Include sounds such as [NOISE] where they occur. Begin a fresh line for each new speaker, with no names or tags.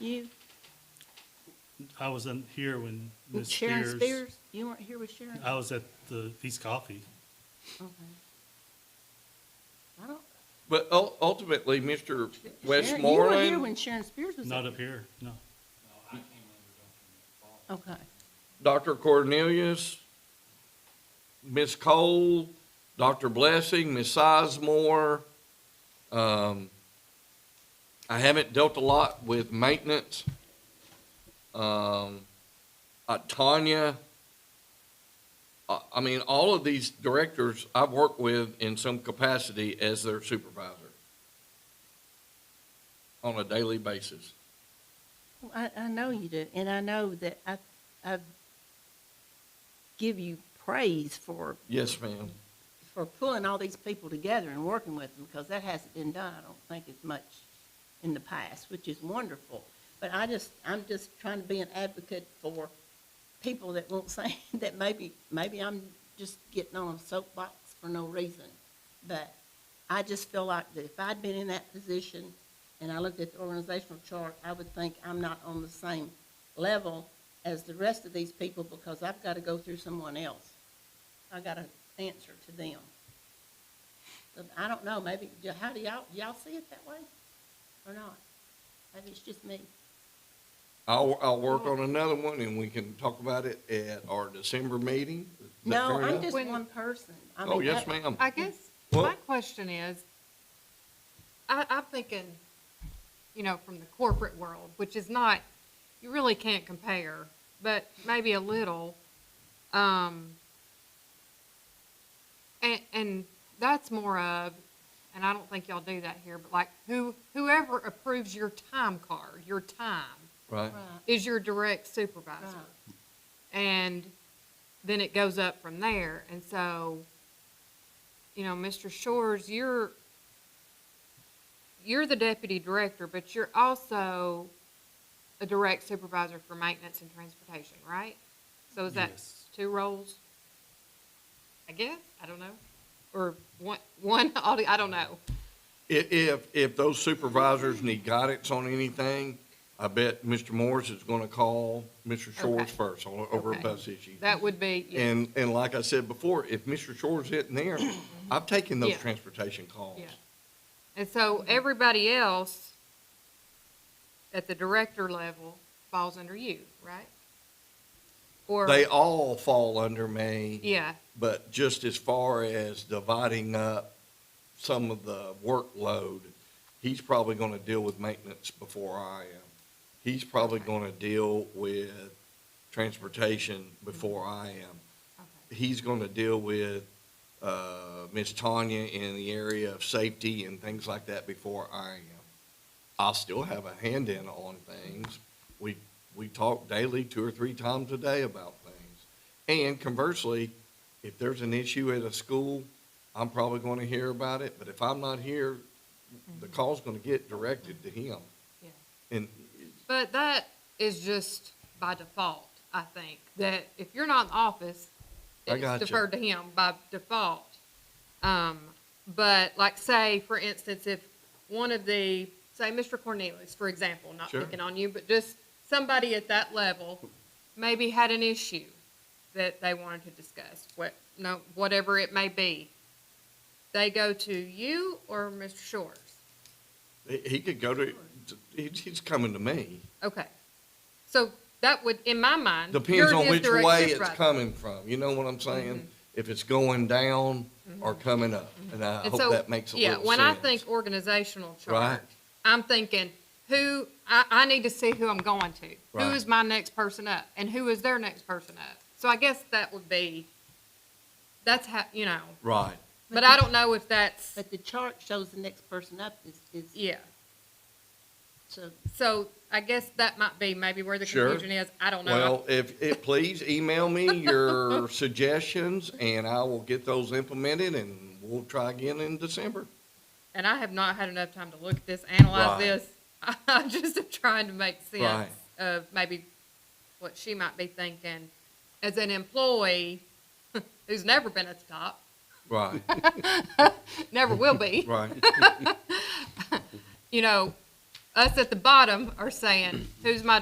You,
I was in here when Ms.
Sharon
Spears.
Spears, you weren't here with Sharon?
I was at the East Coffee.
Okay. I don't,
But ul- ultimately, Mr.
Sharon, you were here when
Westmoreland,
Sharon Spears was
Not
up.
up here, no.
Okay,
Dr. Cornelius, Ms. Cole, Dr. Blessing, Ms. Sizemore. Um, I haven't dealt a lot with maintenance. Um, uh, Tanya. uh, I, I mean, all of these directors I've worked with in some capacity as their supervisor on a daily basis.
Well, I, I know you do, and I know that I, I give you praise for,
Yes, ma'am.
for pulling all these people together and working with them, because that hasn't been done, I don't think, as much in the past, which is wonderful. But I just, I'm just trying to be an advocate for people that won't [LAUGHS] say, that maybe, maybe I'm just getting on a soapbox for no reason. But I just feel like that if I'd been in that position and I looked at the organizational chart, I would think I'm not on the same level as the rest of these people because I've got to go through someone else. I got to answer to them. But I don't know, maybe, do- how do y'all, do y'all see it that way or not? Maybe it's just me.
I'll, I'll work
Oh.
on another one and we can talk about it at our December meeting. Is that
No,
fair
I'm
enough?
just
When-
one person. I
Oh,
mean,
yes,
that-
ma'am.
I guess
Well-
my question is, I, I'm thinking, you know, from the corporate world, which is not, you really can't compare, but maybe a little. Um, and, and that's more of, and I don't think y'all do that here, but like who, whoever approves your time card, your time,
Right,
Right,
is your direct
right.
supervisor. And then it goes up from there. And so, you know, Mr. Shores, you're, you're the deputy director, but you're also a direct supervisor for maintenance and transportation, right? So is that
Yes.
two roles? I guess, I don't know. Or one, one, [LAUGHS] audi- I don't know.
If, if, if those supervisors need guidance on anything, I bet Mr. Morris is gonna call Mr. Shores
Okay.
first on, over a
Okay.
bus issue.
That would be, yeah,
And, and like I said before, if Mr. Shores isn't
[CLEARS THROAT]
there, I've taken those
Yeah.
transportation calls.
yeah. And so everybody else at the director level falls under you, right? Or,
They all fall under me.
yeah,
But just as far as dividing up some of the workload, he's probably gonna deal with maintenance before I am. He's probably
Okay.
gonna deal with transportation before I am.
okay,
He's gonna deal with, uh, Ms. Tanya in the area of safety and things like that before I am. I'll still have a hand in on things. We, we talk daily, two or three times a day about things. And conversely, if there's an issue at a school, I'm probably gonna hear about it, but if I'm not here, the call's gonna get directed to him.
yeah.
And
But that is just by default, I think, that if you're not in the office,
I
it's
gotcha.
deferred to him by default. Um, but like, say, for instance, if one of the, say, Mr. Cornelius, for example, not
Sure.
picking on you, but just somebody at that level maybe had an issue that they wanted to discuss, what, no, whatever it may be. They go to you or Mr. Shores?
he he could go to, he's, he's coming to me.
Okay. So that would, in my mind. yours
Depends on
is
which
direct Mm-hmm.
way it's
supervisor.
coming from, you know what I'm saying? If it's going down or coming up, and I
Mm-hmm. And
hope
so,
that makes a little
yeah,
sense.
when I think organizational chart,
Right.
I'm thinking who, I, I need to see who I'm going to. Who
Right.
is my next person up and who is their next person up? So I guess that would be, that's how, you know,
Right,
but I don't know if that's,
But the chart shows the next person up is, is,
yeah.
so
So I guess that might be maybe where the
Sure.
confusion is. I don't know.
well, if, it please email me
[LAUGHS]
your suggestions, and I will get those implemented, and we'll try again in December.
and I have not had enough time to look at this, analyze
Right.
this. [LAUGHS] I just am trying to make sense
Right.
of maybe what she might be thinking as an employee [LAUGHS] who's never been at the top,
Right, [LAUGHS]
never will be.
right.
You know, Us at the bottom are saying, who's my